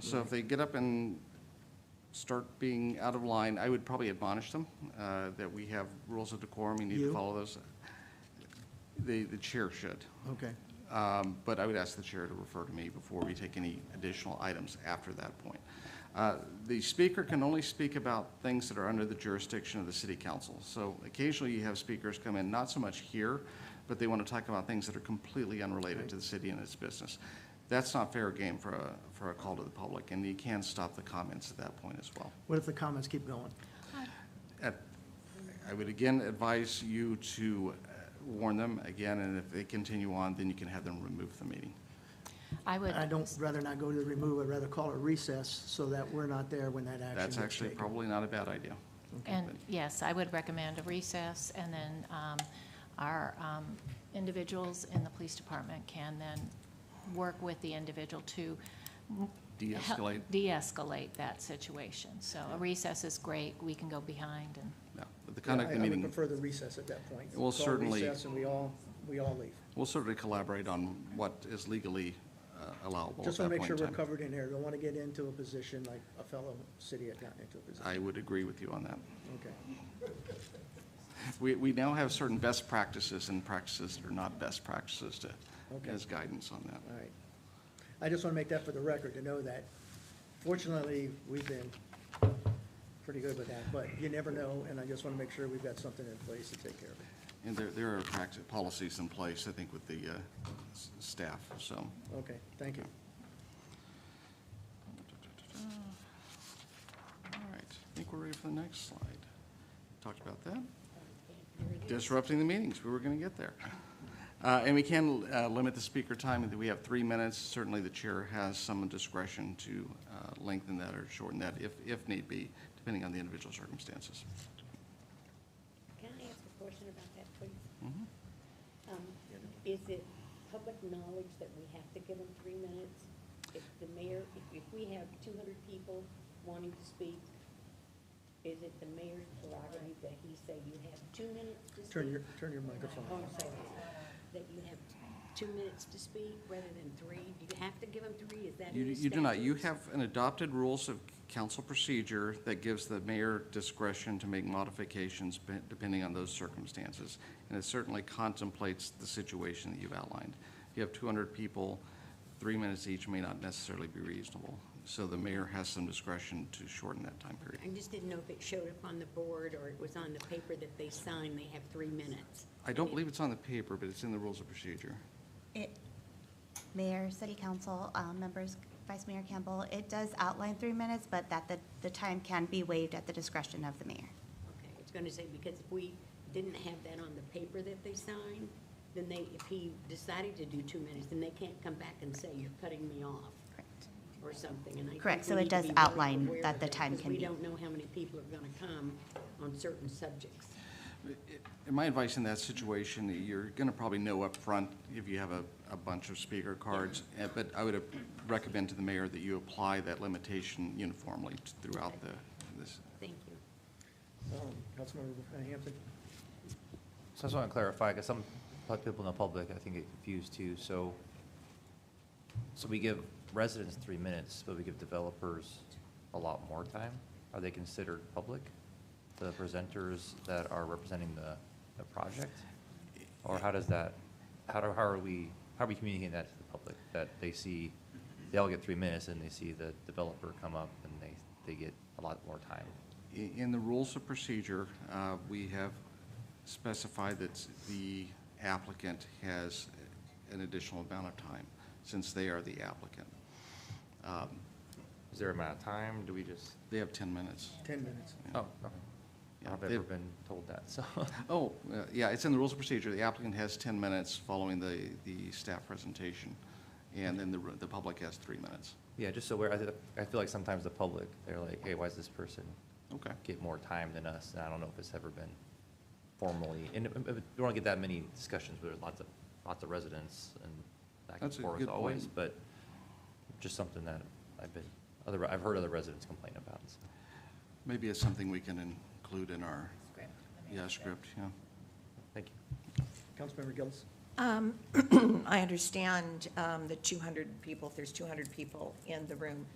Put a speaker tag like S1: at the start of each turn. S1: So if they get up and start being out of line, I would probably admonish them uh, that we have rules of decorum, you need to
S2: You?
S1: follow those. The, the chair should.
S2: Okay,
S1: Um, But I would ask the chair to refer to me before we take any additional items after that point. Uh, The speaker can only speak about things that are under the jurisdiction of the city council. So occasionally you have speakers come in, not so much here, but they want to talk about things that are completely unrelated to the city and its business. That's not fair game for a, for a call to the public, and you can stop the comments at that point as well.
S2: what if the comments keep going?
S1: At- I would again advise you to uh, warn them again, and if they continue on, then you can have them remove the meeting.
S3: I would,
S2: I don't, rather not go to the remove, I'd rather call a recess so that we're not there when that action gets
S1: That's
S2: taken.
S1: actually probably not a bad idea.
S3: and yes, I would recommend a recess, and then um, our um, individuals in the police department can then work with the individual to help
S1: De-escalate,
S3: de-escalate that situation. So a recess is great, we can go behind and,
S1: yeah. But the
S2: Yeah,
S1: conduct of the
S2: I- I
S1: meeting,
S2: would prefer the recess at that point.
S1: Well,
S2: Call
S1: certainly-
S2: recess and we all, we all leave.
S1: we'll certainly collaborate on what is legally uh, allowable at
S2: Just want
S1: that
S2: to make
S1: point
S2: sure
S1: in
S2: we're
S1: time.
S2: covered in here. Don't want to get into a position like a fellow city had gotten into a position.
S1: I would agree with you on that.
S2: Okay.
S1: We, we now have certain best practices and practices that are not best practices to,
S2: Okay.
S1: as guidance on that.
S2: All right. I just want to make that for the record, to know that fortunately, we've been pretty good with that, but you never know, and I just want to make sure we've got something in place to take care of it.
S1: And there, there are practice, policies in place, I think, with the uh, s- staff, so.
S2: Okay, thank you. Mm.
S1: All right, I think we're ready for the next slide. Talked about that. Disrupting the meetings, we were going to get there. Uh, And we can uh, limit the speaker time, we have three minutes. Certainly, the chair has some discretion to uh, lengthen that or shorten that if, if need be, depending on the individual circumstances.
S4: Can I ask a question about that, please?
S1: Mm-hmm.
S4: Um, Is it public knowledge that we have to give them three minutes? If the mayor, if, if we have two hundred people wanting to speak, is it the mayor's prerogative that he say you have two minutes to speak?
S2: Turn your, turn your microphone
S4: Oh,
S2: off.
S4: I'm sorry. That you have two minutes to speak rather than three? Do you have to give them three? Is that
S1: You,
S4: in the
S1: you do not, you
S4: statutes?
S1: have an adopted rules of council procedure that gives the mayor discretion to make modifications be- depending on those circumstances. And it certainly contemplates the situation that you've outlined. If you have two hundred people, three minutes each may not necessarily be reasonable. So the mayor has some discretion to shorten that time period.
S4: I just didn't know if it showed up on the board or it was on the paper that they signed, they have three minutes.
S1: I don't believe it's on the paper, but it's in the rules of procedure.
S5: It, Mayor, City Council, um, members, Vice Mayor Campbell, it does outline three minutes, but that the, the time can be waived at the discretion of the mayor.
S4: Okay, I was gonna say, because if we didn't have that on the paper that they signed, then they, if he decided to do two minutes, then they can't come back and say, you're cutting me off,
S5: Correct.
S4: or something, and I think
S5: Correct, so
S4: we
S5: it
S4: need to
S5: does
S4: be very
S5: outline
S4: aware
S5: that
S4: of
S5: the time
S4: because
S5: can
S4: We
S5: be-
S4: don't know how many people are gonna come on certain subjects.
S1: And my advice in that situation, you're going to probably know up front if you have a, a bunch of speaker cards, eh, but I would recommend to the mayor that you apply that limitation uniformly throughout the, this.
S4: Thank you.
S2: Um, Councilmember Hampton?
S6: So I just want to clarify, because some pu- people in the public, I think, get confused too. So, so we give residents three minutes, but we give developers a lot more time? Are they considered public, the presenters that are representing the, the project? Or how does that, how do, how are we, how are we communicating that to the public? That they see, they all get three minutes, and they see the developer come up, and they, they get a lot more time?
S1: I- In the rules of procedure, uh, we have specified that the applicant has an additional amount of time, since they are the applicant. Um,
S6: Is there a amount of time? Do we just?
S1: They have 10 minutes.
S2: 10 minutes.
S6: Oh, okay.
S1: Yeah,
S6: I've
S1: they-
S6: never been told that, so.
S1: Oh, uh, yeah, it's in the rules of procedure. The applicant has 10 minutes following the, the staff presentation, and then the, the public has three minutes.
S6: Yeah, just so we're, I, th- I feel like sometimes the public, they're like, hey, why does this person
S1: Okay.
S6: get more time than us? And I don't know if it's ever been formally, and, uh, uh, we don't get that many discussions, where there's lots of, lots of residents and back and
S1: That's a
S6: forth
S1: good
S6: always,
S1: point.
S6: but just something that I've been, other, I've heard other residents complain about, so.
S1: Maybe it's something we can include in our. Script. Yeah, script, yeah.
S6: Thank you.
S2: Councilmember Gillis?
S7: Um, I understand um, the 200 people, if there's 200 people in the room,